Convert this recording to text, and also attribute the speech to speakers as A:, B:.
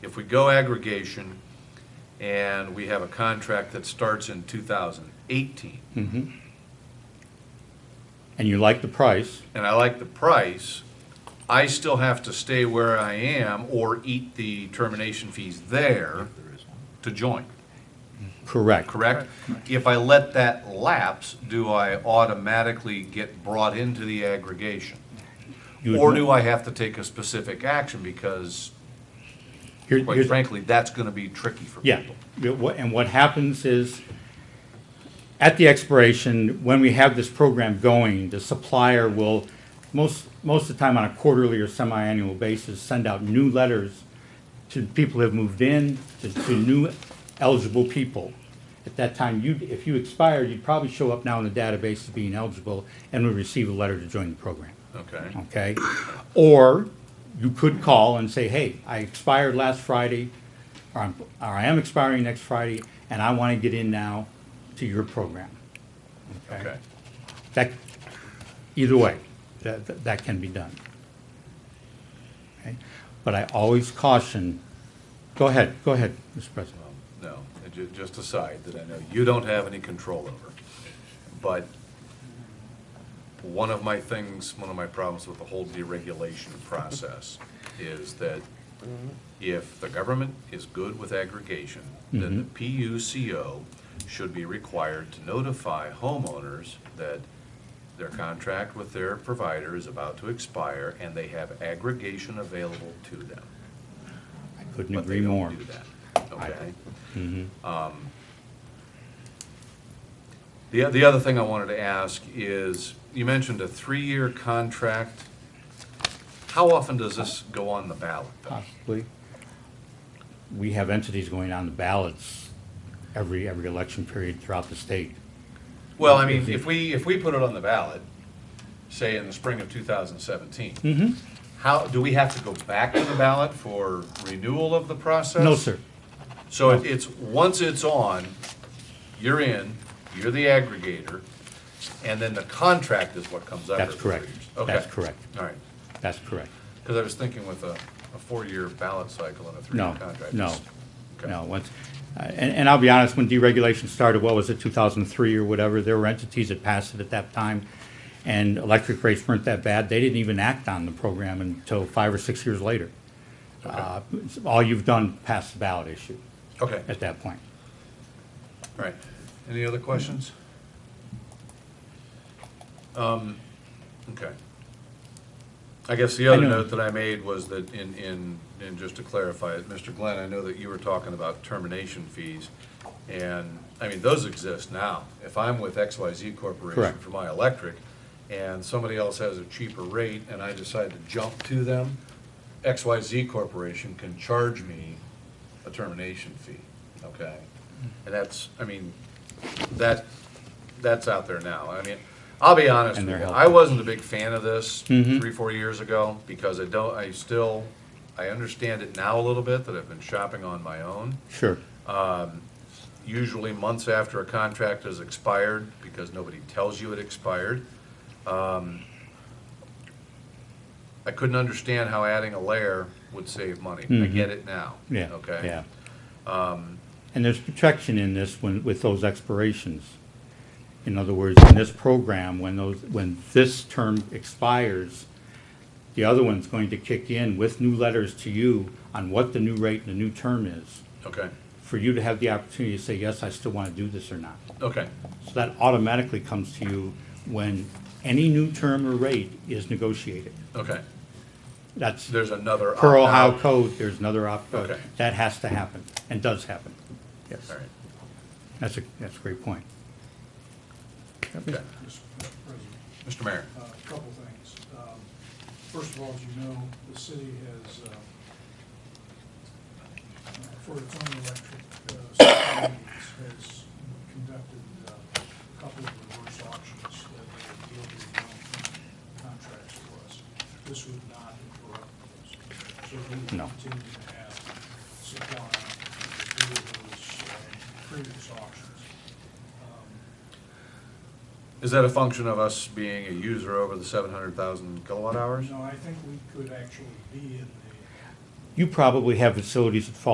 A: If we go aggregation and we have a contract that starts in 2018,
B: Mhm. And you like the price,
A: and I like the price, I still have to stay where I am or eat the termination fees there to join,
B: correct.
A: correct? If I let that lapse, do I automatically get brought into the aggregation?
B: You would
A: Or
B: mo-
A: do I have to take a specific action because,
B: Here-
A: quite
B: here's-
A: frankly, that's going to be tricky for
B: Yeah,
A: people?
B: Yeah, wha- and what happens is, at the expiration, when we have this program going, the supplier will, most, most of the time on a quarterly or semi-annual basis, send out new letters to people who have moved in, to, to new eligible people. At that time, you, if you expired, you'd probably show up now in the database as being eligible and would receive a letter to join the program
A: Okay.
B: okay? Or you could call and say, hey, I expired last Friday, or I'm, or I am expiring next Friday, and I want to get in now to your program.
A: Okay.
B: That, either way, that, that- that can be done. Okay? But I always caution, go ahead, go ahead, Mr. President.
A: No, it ju- just aside that I know you don't have any control over. But one of my things, one of my problems with the whole deregulation process is that if the government is good with aggregation, then the PUCO should be required to notify homeowners that their contract with their provider is about to expire and they have aggregation available to them.
B: I couldn't
A: But they
B: agree
A: don't
B: more.
A: do that, okay? Um, The, the other thing I wanted to ask is, you mentioned a three-year contract. How often does this go on the ballot? though?
B: Possibly. We have entities going on the ballots every, every election period throughout the state.
A: Well, I mean, if we, if we put it on the ballot, say in the spring of 2017.
B: Mm-hmm.
A: How, do we have to go back to the ballot for renewal of the process?
B: No, sir.
A: So it- it's, once it's on, you're in, you're the aggregator, and then the contract is what comes after.
B: That's
A: the three
B: correct.
A: years. Okay.
B: That's correct.
A: All right,
B: That's correct.
A: because I was thinking with a, a four-year ballot cycle and a three-year
B: No,
A: contract.
B: no,
A: it's- okay.
B: no. Once, uh, and, and I'll be honest, when deregulation started, what was it, two thousand and three or whatever, there were entities that passed it at that time. And electric rates weren't that bad. They didn't even act on the program until five or six years later. Uh, it's- All you've done, passed the ballot issue
A: Okay, all
B: at that point.
A: right. Any other questions? Um, okay. I guess the other
B: know.
A: note that I made was that in, in, and just to clarify it, Mr. Glenn, I know that you were talking about termination fees. And, I mean, those exist now. If I'm with XYZ Corporation
B: Correct.
A: for my electric, and somebody else has a cheaper rate, and I decide to jump to them, XYZ Corporation can charge me a termination fee, okay? And that's, I mean, that, that's out there now. I mean, I'll be honest
B: And
A: with
B: they're
A: you,
B: helping. Mm-hmm.
A: I wasn't a big fan of this three, four years ago, because I don't, I still, I understand it now a little bit, that I've been shopping on my own
B: Sure.
A: usually months after a contract has expired, because nobody tells you it expired. Um, I couldn't understand how adding a layer would save money. I get it now.
B: Mm-hmm. Yeah.
A: Okay? Um,
B: Yeah. And there's protection in this when, with those expirations. In other words, in this program, when those, when this term expires, the other one's going to kick in with new letters to you on what the new rate and the new term is,
A: Okay,
B: for you to have the opportunity to say, yes, I still want to do this or not.
A: okay,
B: So that automatically comes to you when any new term or rate is negotiated.
A: okay.
B: That's
A: There's another.
B: per Ohio
A: opt-out.
B: code, there's another opt-out.
A: Okay.
B: That has to happen, and does happen. Yes.
A: All right,
B: That's a, that's a great point.
A: okay.
C: President,
A: Mr. Mayor,
C: uh, a couple things. Um, First of all, as you know, the city has, uh, uh, for its own electric uh, supply needs, has conducted uh, a couple of reverse auctions that have yielded long-term contracts for us. This would not interrupt those. So we
B: No.
C: will continue to have supply through those uh, previous auctions. Um,
A: is that a function of us being a user over the seven hundred thousand kilowatt hours?
C: No, I think we could actually be in the
B: you probably have facilities that fall